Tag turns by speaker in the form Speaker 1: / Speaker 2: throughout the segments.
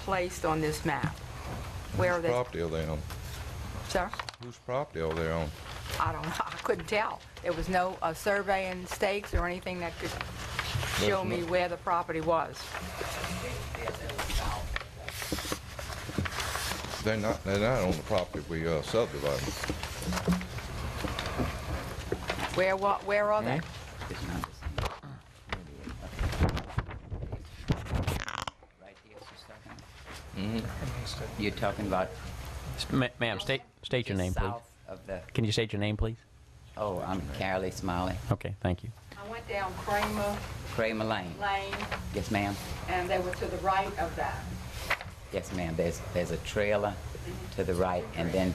Speaker 1: placed on this map? Where are
Speaker 2: Whose
Speaker 1: they?
Speaker 2: property are they on?
Speaker 1: Sir?
Speaker 2: Whose property are they on?
Speaker 1: I don't know, I couldn't tell. There was no uh, surveying stakes or anything that could show
Speaker 2: There's
Speaker 1: me
Speaker 2: no-
Speaker 1: where the property was.
Speaker 2: They're not, they're not on the property we uh, subdivided.
Speaker 1: Where, wa- where are they?
Speaker 3: Mm-hmm. Right here, she's talking. You're talking about
Speaker 4: Ma- Ma'am, state, state your name,
Speaker 3: just
Speaker 4: please.
Speaker 3: south of the,
Speaker 4: Can you state your name, please?
Speaker 3: oh, I'm Carolee Smiley,
Speaker 4: Okay, thank you.
Speaker 1: I went down Kramer
Speaker 3: Kramer Lane.
Speaker 1: Lane,
Speaker 3: Yes, ma'am.
Speaker 1: and they were to the right of that.
Speaker 3: Yes, ma'am. There's, there's a trailer to the right, and then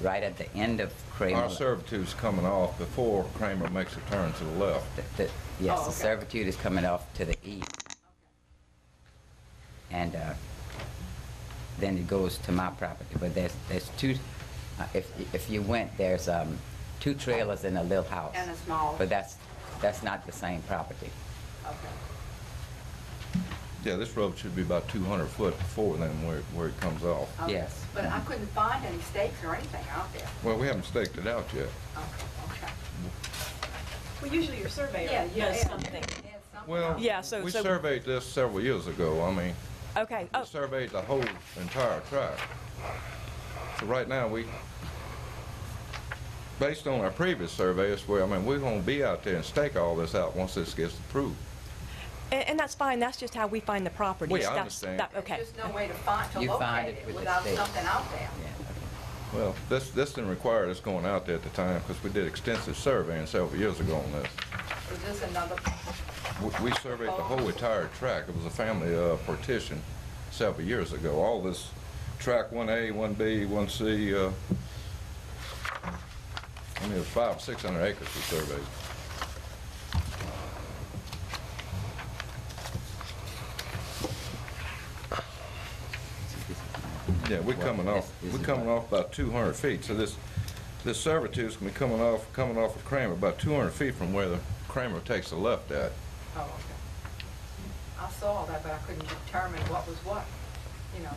Speaker 3: right at the end of Kramer.
Speaker 2: Our servitude's coming off before Kramer makes a turn to the left.
Speaker 3: the- the- Yes,
Speaker 1: Oh,
Speaker 3: the
Speaker 1: okay.
Speaker 3: servitude is coming off to the east. And uh, then it goes to my property, but there's, there's two, uh, if, if you went, there's um, two trailers and a little house.
Speaker 1: And a small-
Speaker 3: But that's, that's not the same property.
Speaker 1: Okay.
Speaker 2: Yeah, this road should be about 200 foot before then where, where it comes off.
Speaker 1: Okay.
Speaker 3: Yes.
Speaker 1: Um, But I couldn't find any stakes or anything out there.
Speaker 2: Well, we haven't staked it out yet.
Speaker 1: Okay, okay.
Speaker 5: Well, usually your surveyor
Speaker 1: Yeah, yeah,
Speaker 5: does
Speaker 1: yeah.
Speaker 5: something.
Speaker 1: There's something
Speaker 2: Well,
Speaker 1: out there.
Speaker 5: Yeah, so-
Speaker 2: we
Speaker 5: so-
Speaker 2: surveyed this several years ago. I mean,
Speaker 5: Okay,
Speaker 2: we
Speaker 5: oh,
Speaker 2: surveyed the whole entire tract. So right now, we, based on our previous survey, it's where, I mean, we're gonna be out there and stake all this out once this gets approved.
Speaker 5: and, and that's fine, that's just how we find the properties.
Speaker 2: Well, yeah, I
Speaker 5: That's-
Speaker 2: understand.
Speaker 5: that- Okay,
Speaker 1: There's just no way to find, to
Speaker 3: You find
Speaker 1: locate
Speaker 3: it
Speaker 1: it
Speaker 3: with the
Speaker 1: without
Speaker 3: stakes.
Speaker 1: something out there.
Speaker 3: Yeah, okay.
Speaker 2: Well, this, this didn't require us going out there at the time, because we did extensive surveying several years ago on this.
Speaker 1: Is this another,
Speaker 2: We- We surveyed the whole entire tract. It was a family uh, partition several years ago. All this track 1A, 1B, 1C, uh, I mean, it was five, 600 acres we surveyed. Yeah, we're coming off,
Speaker 3: This is
Speaker 2: we're coming
Speaker 3: about-
Speaker 2: off about 200 feet. So this, this servitude's gonna be coming off, coming off of Kramer, about 200 feet from where the Kramer takes the left at.
Speaker 1: oh, okay. I saw that, but I couldn't determine what was what, you know,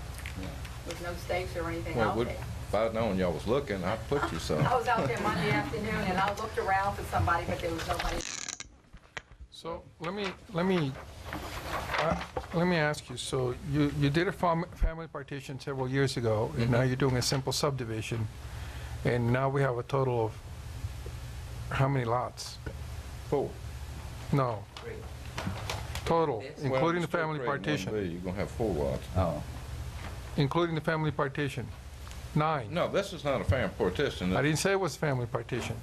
Speaker 1: with no stakes or anything
Speaker 2: Well,
Speaker 1: out
Speaker 2: would-
Speaker 1: there.
Speaker 2: if I'd known y'all was looking, I'd put you some.
Speaker 1: I was out there Monday afternoon, and I looked around for somebody, but there was nobody.
Speaker 6: So let me, let me, uh, let me ask you, so you, you did a fam- family partition several years ago, and
Speaker 2: Mm-hmm.
Speaker 6: now you're doing a simple subdivision, and now we have a total of how many lots?
Speaker 2: Four.
Speaker 6: No. Total,
Speaker 3: This?
Speaker 2: Well,
Speaker 6: including the
Speaker 2: it's still
Speaker 6: family
Speaker 2: grade one B,
Speaker 6: partition,
Speaker 2: You're gonna have four lots.
Speaker 3: Oh,
Speaker 6: including the family partition, nine.
Speaker 2: No, this is not a family partition.
Speaker 6: I didn't say it was family partition,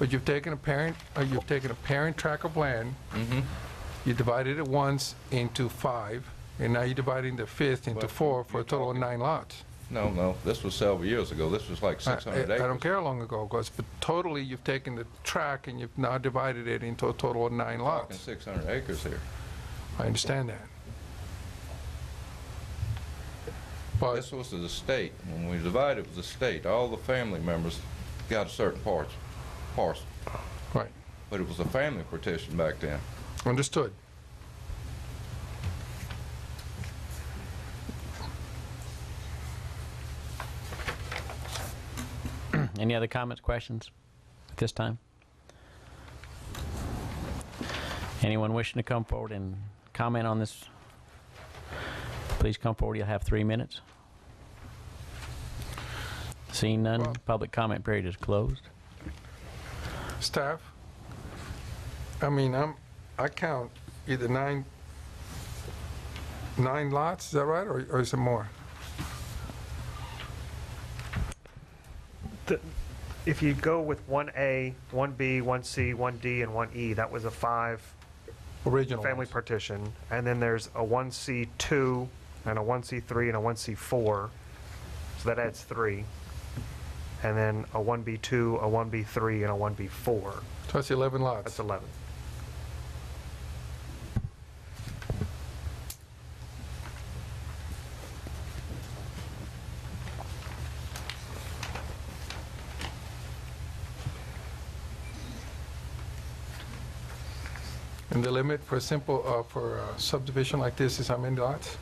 Speaker 6: but you've taken a parent, uh, you've taken a parent tract of land,
Speaker 2: Mhm.
Speaker 6: you divided it once into five, and now you're dividing the fifth into
Speaker 2: Well,
Speaker 6: four for a
Speaker 2: you're
Speaker 6: total of
Speaker 2: talking-
Speaker 6: nine lots.
Speaker 2: No, no, this was several years ago. This was like
Speaker 6: I-
Speaker 2: 600
Speaker 6: I
Speaker 2: acres.
Speaker 6: I don't care how long ago it was, but totally, you've taken the tract and you've now divided it into a total of nine
Speaker 2: Talking
Speaker 6: lots.
Speaker 2: 600 acres here.
Speaker 6: I understand that. But,
Speaker 2: This was the state. When we divided, it was the state. All the family members got a certain parts, parcel.
Speaker 6: right,
Speaker 2: But it was a family partition back then.
Speaker 6: understood.
Speaker 4: Any other comments, questions at this time? Anyone wishing to come forward and comment on this? Please come forward, you'll have three minutes. Seeing none, public comment period is closed.
Speaker 6: Staff, I mean, I'm, I count either nine, nine lots, is that right, or or is it more?
Speaker 7: The- If you go with 1A, 1B, 1C, 1D, and 1E, that was a five-family
Speaker 6: Original ones?
Speaker 7: partition. And then there's a 1C2, and a 1C3, and a 1C4. So that adds three. And then a 1B2, a 1B3, and a 1B4.
Speaker 6: So that's 11 lots.
Speaker 7: That's 11.
Speaker 6: And the limit for a simple, uh, for a subdivision like uh, this is how many lots?